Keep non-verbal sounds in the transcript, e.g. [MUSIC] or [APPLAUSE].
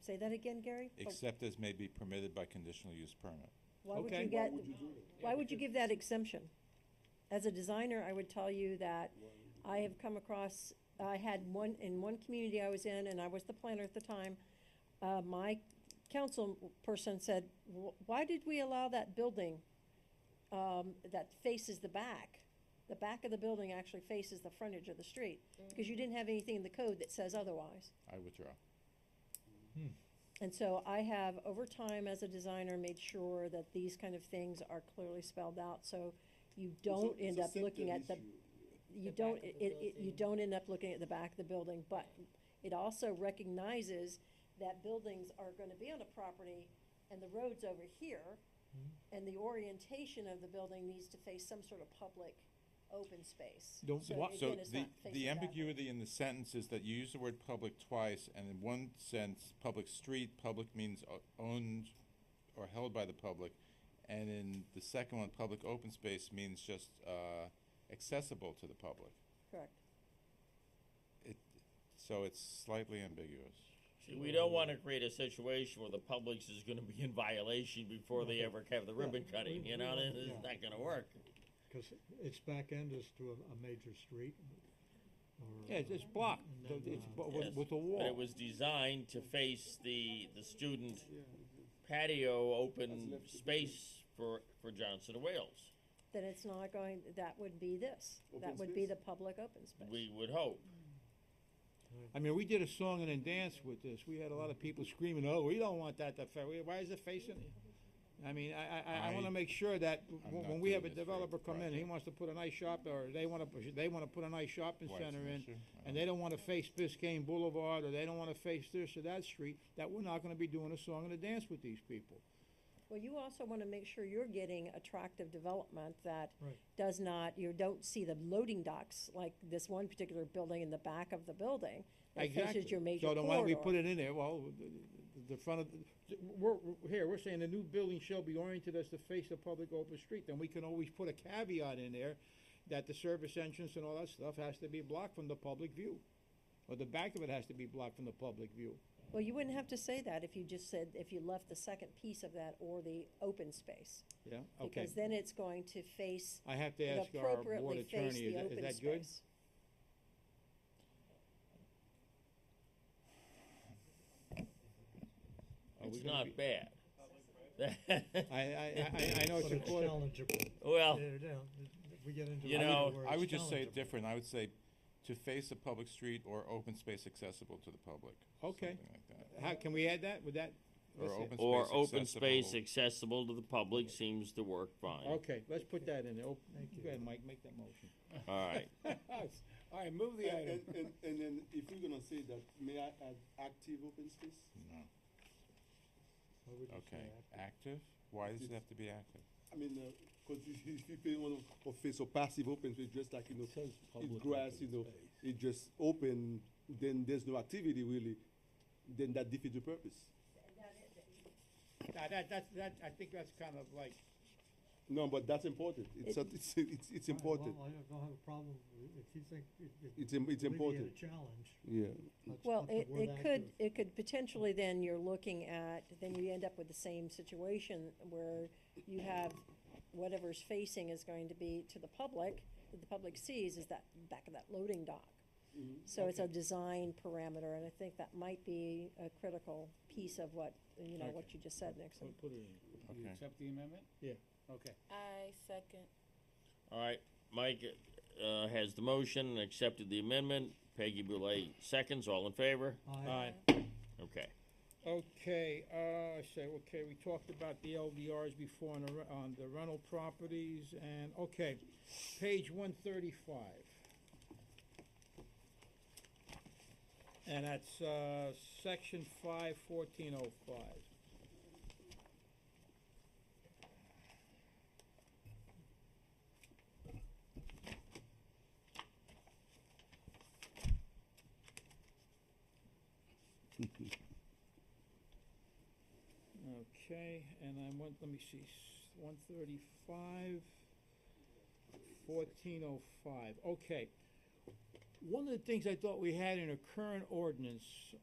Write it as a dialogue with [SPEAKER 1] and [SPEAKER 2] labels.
[SPEAKER 1] Say that again, Gary? But
[SPEAKER 2] except as may be permitted by conditional use permit.
[SPEAKER 1] Why would
[SPEAKER 3] Okay.
[SPEAKER 1] you get, why would you give that exemption? As a designer, I would tell you that I have come across, I had one, in one community I was in, and I was the planner at the time, uh, my council person said, "Wh- why did we allow that building, um, that faces the back? The back of the building actually faces the frontage of the street, because you didn't have anything in the code that says otherwise.
[SPEAKER 2] I withdraw.
[SPEAKER 1] And so I have, over time, as a designer, made sure that these kind of things are clearly spelled out, so you don't end up looking at the, you
[SPEAKER 4] The
[SPEAKER 1] don't,
[SPEAKER 4] back
[SPEAKER 1] it,
[SPEAKER 4] of the
[SPEAKER 1] it, you
[SPEAKER 4] building.
[SPEAKER 1] don't end up looking at the back of the building, but it also recognizes that buildings are gonna be on a property and the road's over here,
[SPEAKER 4] Mm-hmm.
[SPEAKER 1] and the orientation of the building needs to face some sort of public open space.
[SPEAKER 3] Don't-
[SPEAKER 1] So
[SPEAKER 3] wha-
[SPEAKER 2] So
[SPEAKER 1] again, it's
[SPEAKER 2] the,
[SPEAKER 1] not
[SPEAKER 2] the
[SPEAKER 1] facing backward.
[SPEAKER 2] ambiguity in the sentence is that you use the word public twice, and in one sense, public street, public means o- owned or held by the public, and in the second one, public open space means just, uh, accessible to the public.
[SPEAKER 1] Correct.
[SPEAKER 2] It, so it's slightly ambiguous.
[SPEAKER 5] See, we don't wanna create a situation where the Publix is gonna be in violation before they ever have the ribbon cutting, you know, and it's not gonna work.
[SPEAKER 6] Because its back end is to a, a major street. or,
[SPEAKER 3] Yeah, it's, it's
[SPEAKER 6] uh,
[SPEAKER 3] blocked,
[SPEAKER 6] and
[SPEAKER 3] th-
[SPEAKER 6] then,
[SPEAKER 3] it's,
[SPEAKER 6] uh,
[SPEAKER 3] bu- with,
[SPEAKER 5] Yes,
[SPEAKER 3] with a wall.
[SPEAKER 5] But it was designed to face the, the student patio open space for, for Johnson and Wales,
[SPEAKER 1] Then it's not going, that would be this, that
[SPEAKER 7] Open
[SPEAKER 1] would be the
[SPEAKER 7] space?
[SPEAKER 1] public open space.
[SPEAKER 5] we would hope.
[SPEAKER 3] I mean, we did a song and a dance with this. We had a lot of people screaming, "Oh, we don't want that to fa- we- Why is it facing?" I mean, I I, I, I want
[SPEAKER 2] I-
[SPEAKER 3] to make sure that w-
[SPEAKER 2] I'm not
[SPEAKER 3] when we have a
[SPEAKER 2] doing this for
[SPEAKER 3] developer come in, he
[SPEAKER 2] profit.
[SPEAKER 3] wants to put a nice shop, or they want to they want to put a nice shopping
[SPEAKER 2] Why it's
[SPEAKER 3] center
[SPEAKER 2] an
[SPEAKER 3] in,
[SPEAKER 2] issue? Uh, I
[SPEAKER 3] and
[SPEAKER 2] don't-
[SPEAKER 3] they don't want to face Biscayne Boulevard, or they don't want to face this or that street. That we're not going to be doing a song and a dance with these people.
[SPEAKER 1] Well, you also want to make sure you're getting attractive development that
[SPEAKER 6] Right.
[SPEAKER 1] does not, you don't see the loading docks like this one particular building in the back of the building. that faces your major
[SPEAKER 3] So then why don't we put
[SPEAKER 1] corridor.
[SPEAKER 3] it in there? Well, the- the- the front of, the- we're, we're- here, we're saying the new building shall be oriented as to face the public open street. Then we can always put a caveat in there that the service entrance and all that stuff has to be blocked from the public view. Or the back of it has to be blocked from the public view.
[SPEAKER 1] Well, you wouldn't have to say that if you just said, if you left the second piece of that or the open space.
[SPEAKER 3] Yeah, okay.
[SPEAKER 1] Because then it's going to face,
[SPEAKER 3] I have to
[SPEAKER 1] it
[SPEAKER 3] ask our board
[SPEAKER 1] appropriately face
[SPEAKER 3] attorney, is
[SPEAKER 1] the
[SPEAKER 3] that- is
[SPEAKER 1] open
[SPEAKER 3] that good?
[SPEAKER 1] space.
[SPEAKER 3] Are Oh, we
[SPEAKER 5] It's
[SPEAKER 3] gonna
[SPEAKER 5] not
[SPEAKER 3] be-
[SPEAKER 5] bad.
[SPEAKER 3] I, I, I, I know it's
[SPEAKER 6] But
[SPEAKER 3] a
[SPEAKER 6] it's
[SPEAKER 3] court,
[SPEAKER 6] challengeable.
[SPEAKER 5] [LAUGHS] Well,
[SPEAKER 6] They're down- we get into.
[SPEAKER 5] You
[SPEAKER 6] a
[SPEAKER 5] know,
[SPEAKER 6] where
[SPEAKER 2] I
[SPEAKER 6] it's
[SPEAKER 2] would just say it
[SPEAKER 6] challengeable.
[SPEAKER 2] different, I would say to face a public street or open space accessible to the public.
[SPEAKER 3] Okay.
[SPEAKER 2] Something like that.
[SPEAKER 3] how, can we add that? Would that?
[SPEAKER 2] Or
[SPEAKER 3] let's-
[SPEAKER 2] open
[SPEAKER 5] or
[SPEAKER 2] space
[SPEAKER 5] open space
[SPEAKER 2] accessible.
[SPEAKER 5] accessible to the public seems to work fine.
[SPEAKER 3] Okay, let's put that in there. Op-
[SPEAKER 6] Thank you.
[SPEAKER 3] Go ahead, Mike, make that motion. Uh,
[SPEAKER 5] All right.
[SPEAKER 3] All right, move the
[SPEAKER 7] And,
[SPEAKER 3] item.
[SPEAKER 7] and- and, and then if we're gonna say that, may I add active open space?
[SPEAKER 2] No.
[SPEAKER 6] Why would you say
[SPEAKER 2] Okay,
[SPEAKER 6] that?
[SPEAKER 2] [LAUGHS] active? Why does it
[SPEAKER 7] It's-
[SPEAKER 2] have to be active?
[SPEAKER 7] I mean, uh 'cause cause if, if you pay one of, of face or passive open space, just like, you know,
[SPEAKER 3] says public
[SPEAKER 7] it's grass,
[SPEAKER 3] open
[SPEAKER 7] you know,
[SPEAKER 3] space.
[SPEAKER 7] it just open, then there's no activity really, then that defeats the purpose.
[SPEAKER 3] Now, that, that, that, I think that's kind of like,
[SPEAKER 7] No, but that's important. It's,
[SPEAKER 1] It-
[SPEAKER 7] a- it's, it's, it's
[SPEAKER 6] All right,
[SPEAKER 7] important.
[SPEAKER 6] Well, I don't- don't have a problem with- if you think it, it
[SPEAKER 7] It's, im-
[SPEAKER 6] alleviate
[SPEAKER 7] it's
[SPEAKER 6] a
[SPEAKER 7] important.
[SPEAKER 6] challenge.
[SPEAKER 7] Yeah.
[SPEAKER 6] let's
[SPEAKER 1] Well,
[SPEAKER 6] put the
[SPEAKER 1] it,
[SPEAKER 6] word
[SPEAKER 1] it could,
[SPEAKER 6] active.
[SPEAKER 1] it could potentially then, you're looking at, then you end up with the same situation where you have whatever's facing is going to be to the public, that the public sees is that back of that loading dock. So it's a design parameter, and I think that might be a critical piece of what, you know, what you just said, Nixon.
[SPEAKER 3] put it in.
[SPEAKER 2] Okay.
[SPEAKER 3] accept the amendment? Yeah. Okay.
[SPEAKER 4] I second.
[SPEAKER 5] All right, Mike uh, has the motion and accepted the amendment. Peggy Boulay seconds. All in favor?
[SPEAKER 6] Aye.
[SPEAKER 3] All right,
[SPEAKER 5] Okay.
[SPEAKER 3] okay, uh, I say, okay, we talked about the LDRs before on the, re- on the rental properties, and, okay, page one thirty-five. And that's, uh, section five fourteen oh five. Okay, and I want, let me see, one thirty-five, fourteen oh five, okay. One of the things I thought we had in a current ordinance